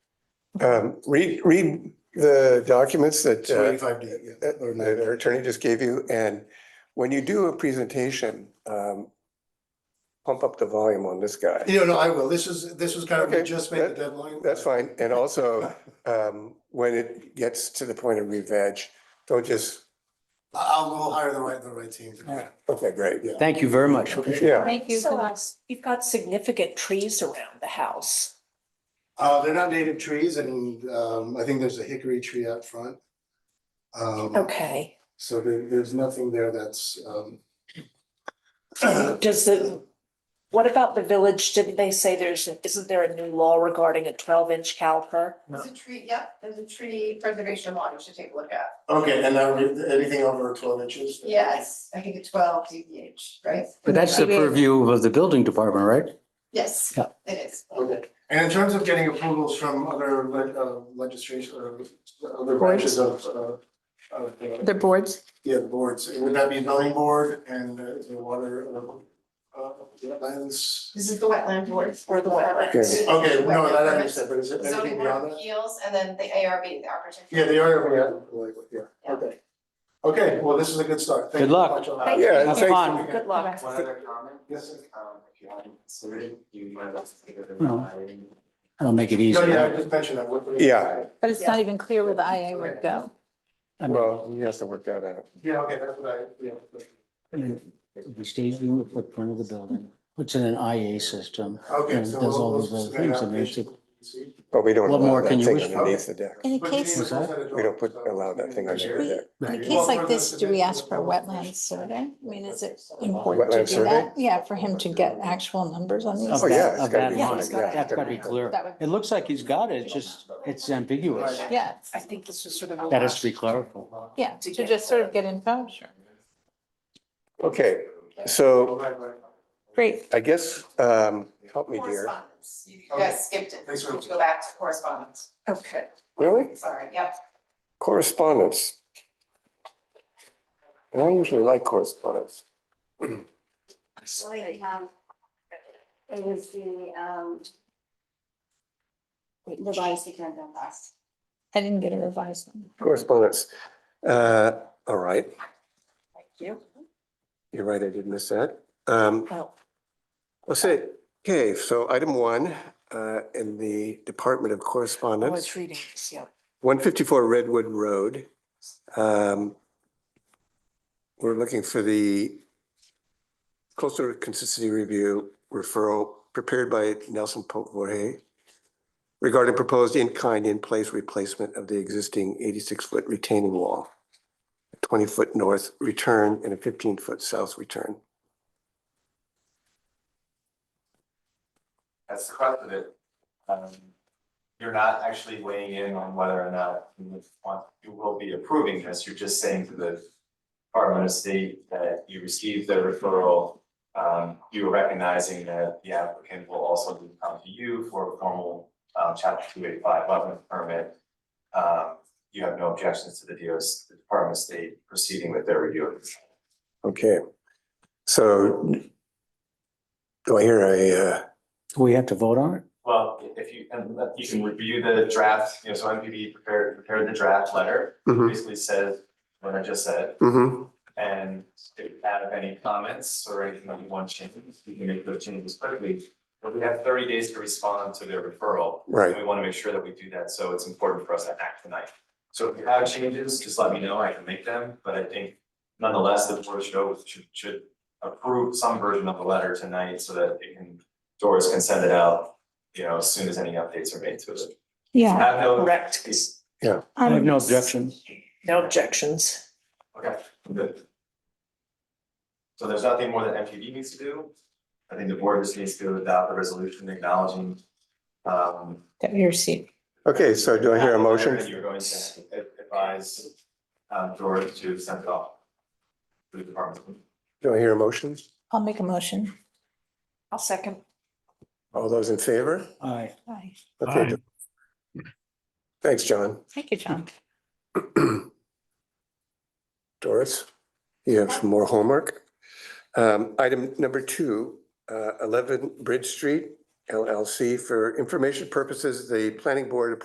Um, read, read the documents that, uh, Twenty-five D, yeah. that or that no. our attorney just gave you, and when you do a presentation, um, pump up the volume on this guy. You know, no, I will. This is, this was kind of, we Okay, just made the that- deadline. That's fine, and also, um, when it gets to the point of re-veg, don't just, I'll go hire the right, the right team. to do it. okay, great, yeah. Thank you very much. Yeah, Thank you. So for uh, that. you've got significant trees around the house. Uh, they're not native trees and, um, I think there's a hickory tree out front. Um, Okay. so there, there's nothing there that's, um. Does the, what about the village? Didn't they say there's, isn't there a new law regarding a twelve inch caliper? There's a tree, yep, there's a tree preservation law you should take a look at. Okay, and now we- anything over twelve inches? Yes, I think it's twelve DBH, right? But that's the purview of the building department, right? Yes, Yeah. it is. Okay, and in terms of getting approvals from other le- uh, legislation, uh, other branches of, uh, of, uh, The boards, yeah, boards, would that be zoning board and uh, the water, uh, uh, wetlands? This is the wetland board for the Okay. wetlands. Okay, no, that I understand, but is it Zoning anything board of beyond that? appeals and then the ARB, the architecture. Yeah, they are, yeah, like, yeah, okay. Okay, well, this is a good start. Thank Good you so luck. much. I'll- Thank you. yeah, Have thanks. fun. Good luck. One other comment. Yes, sir. Um, if you haven't considered, you might want to consider the No. hiring. I'll make it No, yeah, I easier. just mentioned that. What- Yeah. but it's not even clear where the IA would go. Well, he has to work that out. Yeah, okay, that's what I, yeah. We stays in the footprint of the building, puts in an IA system. Okay, And so. there's we'll- all we'll these other submit an things that makes it- application. See? But we don't What allow more that can you thing wish for? underneath the deck. In a But you case- need to What's set it We don't up, put, so- allow that thing underneath the deck. In a Right. case like this, do we ask for a wetland survey? I mean, is it important to Wetland do survey? that? Yeah, for him to get actual numbers on Of Oh, yeah, these. that, it's gotta of that be line. fine, yeah. That's gotta be clear. That would- It looks like he's got it, it's just, it's ambiguous. Yeah, I think this was sort of. a That has to be last- clarified. yeah, to just sort of get info, sure. Okay, so Right, right. Great. I guess, um, help me dear. Correspondence, you guys skipped it. Thanks very much. Go back to correspondence, Okay. Really? sorry, yep. Correspondence. And I usually like correspondence. Wait, um, It was the, um, revised agenda last. I didn't get a revised one. Correspondence. Uh, all right. Thank you. You're right, I did miss that. Um, Oh. let's say, okay, so item one, uh, in the Department of I Correspondence. was reading this, yeah. one fifty-four Redwood Road. Um, We're looking for the coastal consistency review referral prepared by Nelson Pope Jorge regarding proposed in-kind, in-place replacement of the existing eighty-six-foot retaining wall, twenty-foot north return and a fifteen-foot south return. That's the crux of it. Um, you're not actually weighing in on whether or not you would want, you will be approving this, you're just saying to the Department of State that you received the referral. Um, you are recognizing that the applicant will also come to you for a formal, um, chapter two eight five eleven permit. Um, you have no objections to the DOS, the Department of State proceeding with their review of this. Okay, so do I hear a, uh, We have to vote on it? Well, if you, and you can review the draft, you know, so MPD prepared, prepared the draft letter, Mhm. basically says what I just said. mhm, And if you have any comments or anything that you want changes, you can make those changes quickly. But we have thirty days to respond to their referral. right. And we want to make sure that we do that, so it's important for us to act tonight. So if you have changes, just let me know, I can make them, but I think nonetheless, the board should, should, should approve some version of the letter tonight so that it can, Doris can send it out, you know, as soon as any updates are made to it. Yeah, Have no, Correct. I have no objection. No objections. okay, good. So there's nothing more that MPD needs to do. I think the board just needs to adopt a resolution acknowledging, um, that we received. Okay, so do I hear a motion? that You're going to advise, um, Doris to send it off to the department. Do I hear a motion? I'll make a motion. I'll second. All those in favor? Aye. Aye. Okay. Thanks, John. Thank you, John. Doris, you have some more homework. Um, Item number two, uh, 11 Bridge Street LLC. For information purposes, the planning board